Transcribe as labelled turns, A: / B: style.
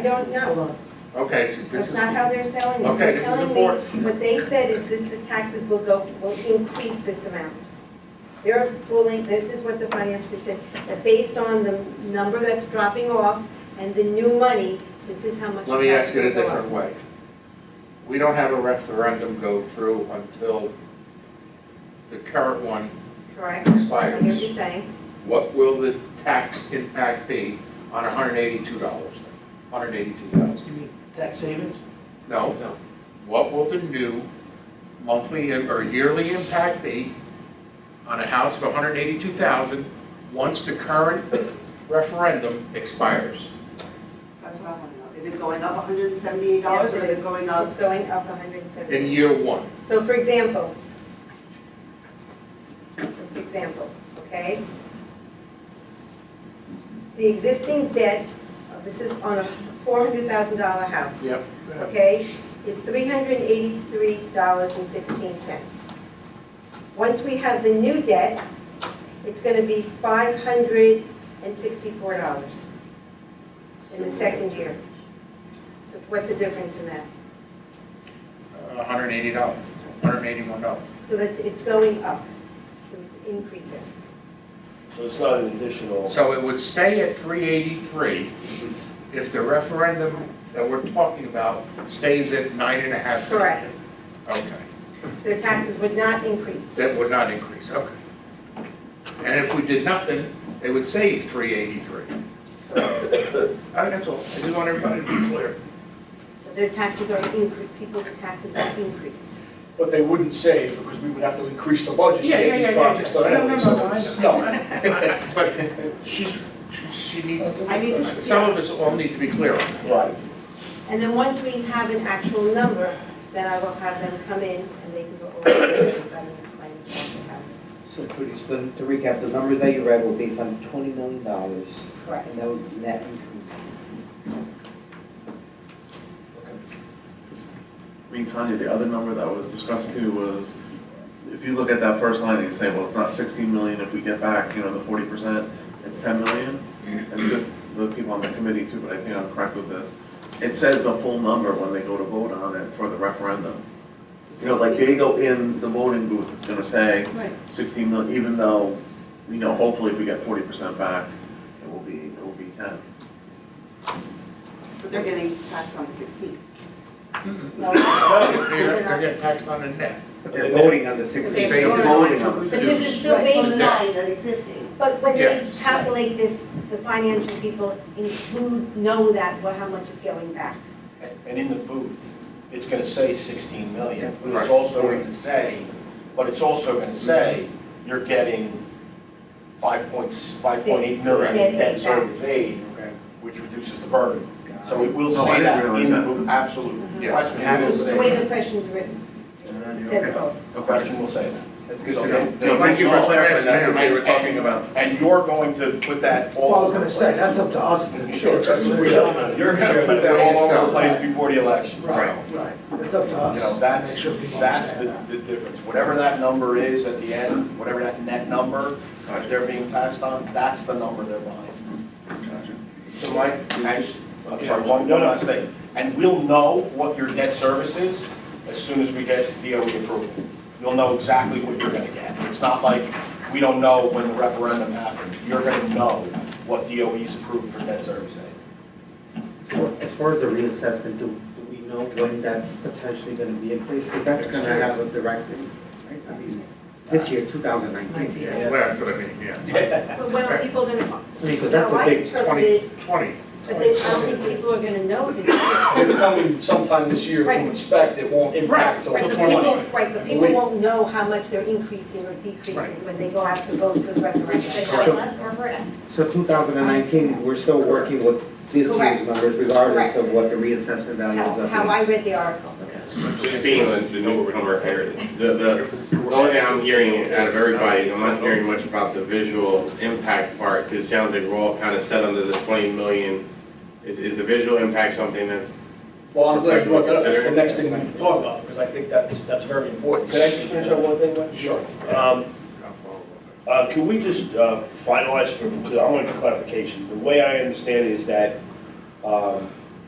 A: don't know.
B: Okay, so this
A: That's
B: is.
A: not how they're selling it.
B: Okay,
A: They're
B: this is
A: telling me
B: important.
A: What they said is this, the taxes will go, will increase this amount. They're fooling, this is what the finance group said, that based on the number that's dropping off and the new money, this is how much.
B: Let me
A: tax
B: ask it a
A: will go up.
B: different way. We don't have a referendum go through until the current one
A: Correct? I hear what you're
B: expires.
A: saying.
B: What will the tax impact be on hundred and eighty-two dollars, hundred and eighty-two thousand?
C: You mean tax savings?
B: No,
C: No.
B: what will the new monthly im- or yearly impact be on a house of hundred and eighty-two thousand once the current referendum expires?
D: That's what I want to know. Is it going up hundred and seventy-eight dollars or is it going up?
A: It's going up 170.
B: In year one,
A: So for example, so for example, okay? The existing debt, uh, this is on a $400,000 house,
B: yep,
A: okay, is $383.16. Once we have the new debt, it's going to be $564 in the second year. So what's the difference in that?
B: hundred and eighty dollars, hundred and eighty-one dollars.
A: So that it's going up, it was increasing.
E: So it's not an additional,
B: So it would stay at 383 if the referendum that we're talking about stays at nine and a half.
A: Correct.
B: Okay,
A: Their taxes would not increase.
B: that would not increase, okay. And if we did nothing, they would save 383. Uh, That's all, I just want everybody to be clear.
A: So Their taxes are increased, people's taxes will increase.
F: But they wouldn't save because we would have to increase the budget. to
B: Yeah,
F: get
B: yeah, yeah,
F: these
B: yeah,
F: projects
B: yeah.
F: done
B: No, no,
F: anyway,
B: no,
F: so
B: no, I
F: it's-
B: know.
F: no.
B: But she's, she- she needs,
D: I need to.
B: some of us all need to be clear on that.
E: right,
A: And then once we have an actual number, then I will have them come in and they can go over it and explain what happens.
G: So Trudy, so to recap, the numbers that you read were based on twenty million dollars,
A: Correct.
G: and that was the net increase.
H: I mean, Tanya, the other number that was discussed too was, if you look at that first line and you say, well, it's not sixteen million if we get back, you know, the forty percent, it's ten million. And just the people on the committee too, but I think I'm correct with this. It says the full number when they go to vote on it for the referendum. You know, like they go in the voting booth, it's gonna say
D: Right.
H: sixteen million, even though, you know, hopefully if we get forty percent back, it will be, it will be ten.
D: But they're getting taxed on the sixteen.
A: No,
B: They're
A: they're
B: they're
A: not.
B: getting taxed on the net.
G: But They're voting on the
A: They're
G: sixteen.
B: They are
H: voting on
A: But
H: the
A: this is still
D: Right,
A: based
D: on
A: on,
D: nine, the existing.
A: but when they
B: Yes.
A: calculate this, the financial people include, know that, well, how much is going back.
I: And in the booth, it's going to say 16 million, but
B: Right.
I: it's also going to say, but it's also going to say, you're getting 5 points, 5.8 million
A: Net
I: in debt
A: aid
I: service aid, which reduces the burden. So it will
H: No, I
I: say
H: didn't
I: that
H: realize
I: in the
H: that.
I: booth, absolutely.
B: Yeah.
I: The question will
B: Absolutely.
A: The way the
I: say,
A: question's written, it
I: that.
A: says both.
I: the question will say that.
E: that's good
I: So
E: to
I: they'll-
E: know.
I: they'll
B: Thank you for
I: resolve
B: clarifying that,
I: transparently,
B: because they were talking
I: and-
H: about-
I: And you're going to put that all
C: Well, I was
I: over
C: gonna
I: the
C: say,
I: place.
C: that's up to us to.
I: Sure, that's what we're- You're going to put that all over the place before the election.
C: Right, right, it's up to
I: You know,
C: us to
I: that's,
C: make sure people
I: that's the,
C: understand that.
I: the difference. Whatever that number is at the end, whatever that net number that they're being taxed on, that's the number they're buying.
E: So Mike,
I: And, I'm sorry, one, one last thing. And we'll know what your debt service is as soon as we get DOE approval. You'll know exactly what you're gonna get. It's not like we don't know when the referendum happens. You're gonna know what DOE's approved for debt service aid.
G: As far as the reassessment, do, do we know when that's potentially gonna be in place? Because that's gonna have a direct, im- right? I mean, this
A: Uh,
G: year, two thousand nineteen.
B: Yeah, well, that's what I mean, yeah.
A: But when are people going to,
G: Because that's
A: now
G: a
A: I
G: big,
A: interpreted
B: 20.
A: But they, I don't think people are gonna know this.
F: They're coming sometime this year to
A: Right.
F: inspect, it won't impact
A: Right,
F: until
A: but people,
F: 21.
A: right, but people won't know how much they're increasing or decreasing
B: Right.
A: when they go out to vote for the referendum.
G: Correct.
J: Unless or for us.
G: so two thousand and nineteen, we're still working with this year's
A: Correct.
G: numbers regardless of
A: Correct.
G: what the reassessment value ends
A: How,
G: up
A: how
G: being.
A: I read the article.
K: Just being the, the number we're hearing, the, the, the only thing I'm hearing out of everybody, I'm not hearing much about the visual impact part, because it sounds like we're all kind of set under the twenty million. Is, is the visual impact something that,
F: Well, I'm glad you brought that up, that's the next thing we need to talk about, because I think that's, that's very important.
E: could I just finish on one thing, Mike?
F: Sure.
E: Um, uh, Can we just uh, finalize, for because I want clarification. The way I understand it is that um,